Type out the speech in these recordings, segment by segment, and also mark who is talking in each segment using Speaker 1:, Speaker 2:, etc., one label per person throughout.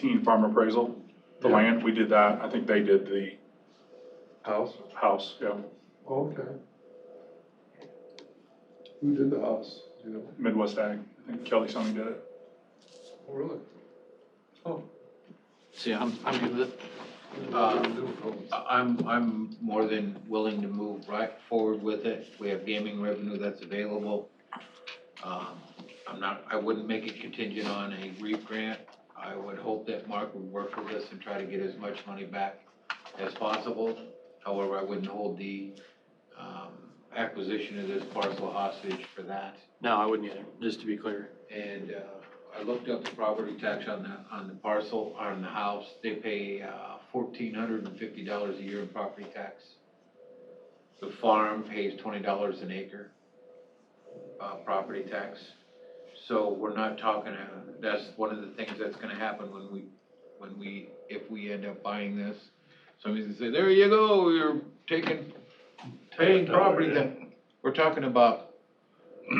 Speaker 1: 2018 farm appraisal, the
Speaker 2: Yeah.
Speaker 1: land, we did that. I think they did the
Speaker 2: House?
Speaker 1: house, yeah,
Speaker 2: Oh, Okay. Who did the house, you know?
Speaker 1: Midwest Ag. I think Kelly Sonny did it.
Speaker 2: Oh, Really? Oh.
Speaker 3: So yeah, I'm, I'm good with it.
Speaker 2: I didn't do it.
Speaker 4: I- I'm, I'm more than willing to move right forward with it. We have gaming revenue that's available. Um, I'm not, I wouldn't make it contingent on a REAP grant. I would hope that Mark would work with us and try to get as much money back as possible. However, I wouldn't hold the um, acquisition of this parcel hostage for that.
Speaker 3: No, I wouldn't either, just to be clear.
Speaker 4: And uh, I looked up the property tax on the, on the parcel, on the house. They pay uh, fourteen hundred and fifty dollars a year in property tax. The farm pays twenty dollars an acre, uh, property tax. So we're not talking, uh, that's one of the things that's gonna happen when we, when we, if we end up buying this. Somebody's gonna say, there you go, you're taking, paying property tax. We're talking about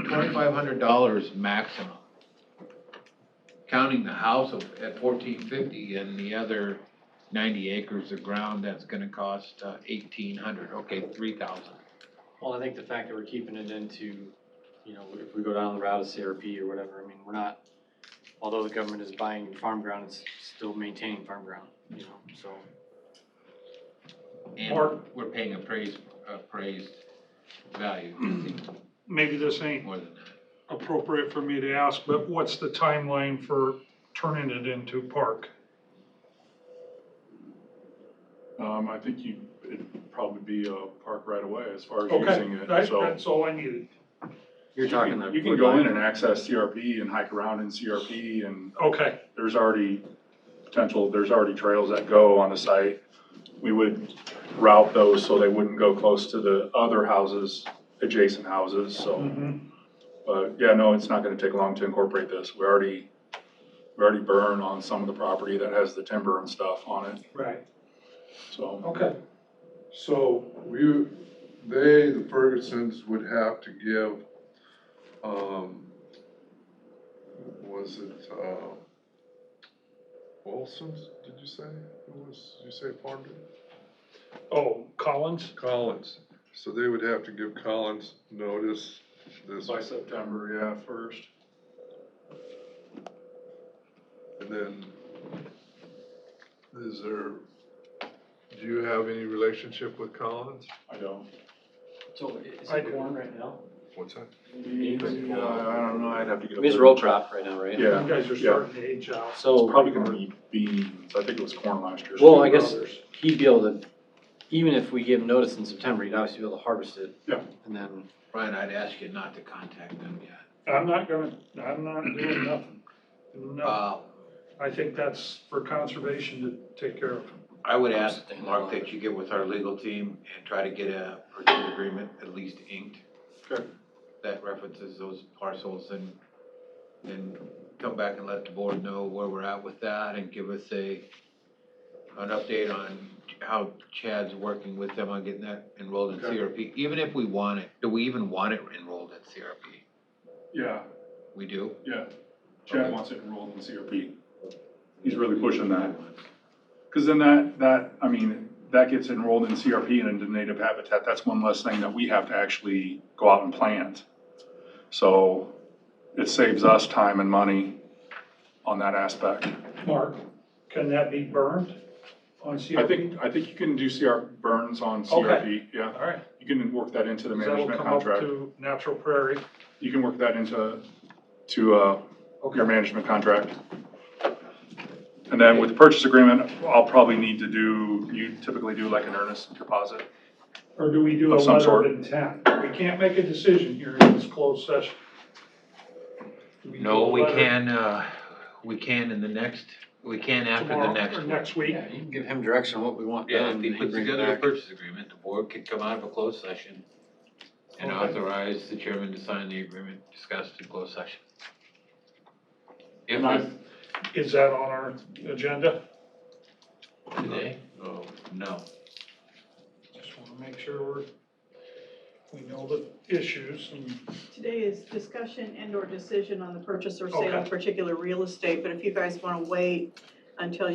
Speaker 4: twenty-five hundred dollars maximum. Counting the house of, at fourteen fifty and the other ninety acres of ground, that's gonna cost uh, eighteen hundred, okay, three thousand.
Speaker 3: Well, I think the fact that we're keeping it into, you know, if we go down the route of CRP or whatever, I mean, we're not, although the government is buying farm ground, it's still maintaining farm ground, you know, so.
Speaker 4: And
Speaker 5: Or-
Speaker 4: we're paying appraised, appraised value,
Speaker 5: maybe this ain't
Speaker 4: more than that.
Speaker 5: appropriate for me to ask, but what's the timeline for turning it into park?
Speaker 1: Um, I think you, it'd probably be a park right away as far as using
Speaker 5: Okay,
Speaker 1: it,
Speaker 5: that's,
Speaker 1: so.
Speaker 5: that's all I needed.
Speaker 3: You're talking that.
Speaker 1: You can go in and access CRP and hike around in CRP and
Speaker 5: Okay,
Speaker 1: there's already potential, there's already trails that go on the site. We would route those so they wouldn't go close to the other houses, adjacent houses, so.
Speaker 5: mhm,
Speaker 1: But yeah, no, it's not gonna take long to incorporate this. We already, we already burn on some of the property that has the timber and stuff on it,
Speaker 5: right,
Speaker 1: so.
Speaker 5: okay.
Speaker 2: So we, they, the Fergusons would have to give, um, was it, uh, Wilson's, did you say? It was, did you say Farmington?
Speaker 5: Oh, Collins?
Speaker 2: Collins. So they would have to give Collins notice this,
Speaker 1: By September, yeah, first.
Speaker 2: and then is there, do you have any relationship with Collins?
Speaker 1: I don't.
Speaker 3: So is
Speaker 5: I
Speaker 3: it
Speaker 5: do.
Speaker 3: corn right now?
Speaker 2: What's that?
Speaker 1: Yeah, Uh, I don't know, I'd have to get.
Speaker 3: I
Speaker 1: a
Speaker 3: mean, it's row crop right now, right?
Speaker 1: Yeah,
Speaker 5: You guys are
Speaker 1: yeah.
Speaker 5: starting to age out.
Speaker 3: So.
Speaker 1: Probably gonna be beans. I think it was corn last year.
Speaker 3: Well, I guess he'd be able to, even if we give him notice in September, he'd obviously be able to harvest it.
Speaker 1: Yeah.
Speaker 3: And then,
Speaker 4: Brian, I'd ask you not to contact them yet.
Speaker 5: I'm not gonna, I'm not doing nothing. No,
Speaker 4: Uh,
Speaker 5: I think that's for conservation to take care of.
Speaker 4: I would ask, Mark, that you get with our legal team and try to get a purchase agreement at least inked.
Speaker 1: Okay.
Speaker 4: That references those parcels and, and come back and let the board know where we're at with that and give us a, an update on how Chad's working with them on getting that enrolled in
Speaker 1: Okay.
Speaker 4: CRP, even if we want it, do we even want it enrolled at CRP?
Speaker 1: Yeah,
Speaker 4: We do?
Speaker 1: yeah. Chad
Speaker 4: Okay.
Speaker 1: wants it enrolled in CRP. He's really pushing that. Because then that, that, I mean, that gets enrolled in CRP and into native habitat. That's one less thing that we have to actually go out and plant. So it saves us time and money on that aspect.
Speaker 5: Mark, can that be burned on CRP?
Speaker 1: I think, I think you can do CR, burns on CRP, yeah.
Speaker 5: All right,
Speaker 1: You can work that into the
Speaker 5: 'cause that'll
Speaker 1: management
Speaker 5: come up
Speaker 1: contract.
Speaker 5: to natural prairie.
Speaker 1: You can work that into, to, uh, your management contract. And then with the purchase agreement, I'll probably need to do, you typically do like an earnest deposit.
Speaker 5: Or do we do a
Speaker 1: Of some
Speaker 5: letter
Speaker 1: sort.
Speaker 5: of intent? We can't make a decision here in this closed session. Do do
Speaker 4: No,
Speaker 5: a
Speaker 4: we
Speaker 5: letter
Speaker 4: can, uh, we can in the next, we can after the
Speaker 5: tomorrow
Speaker 4: next
Speaker 5: Or
Speaker 4: one.
Speaker 5: next week?
Speaker 3: yeah, you can give him direction on what we want
Speaker 4: Yeah,
Speaker 3: done.
Speaker 4: if he
Speaker 3: and
Speaker 4: puts
Speaker 3: Um, brings it
Speaker 4: together a
Speaker 3: back.
Speaker 4: purchase agreement, the board could come out of a closed session and
Speaker 5: Okay.
Speaker 4: authorize the chairman to sign the agreement discussed in closed session. If
Speaker 5: And I,
Speaker 4: it's
Speaker 5: is that on our agenda?
Speaker 4: today, oh, no.
Speaker 5: Just want to make sure we're, we know the issues and,
Speaker 6: Today is discussion and/or decision on the purchase or sale of
Speaker 5: Okay.
Speaker 6: particular real estate, but if you guys want to wait, um, until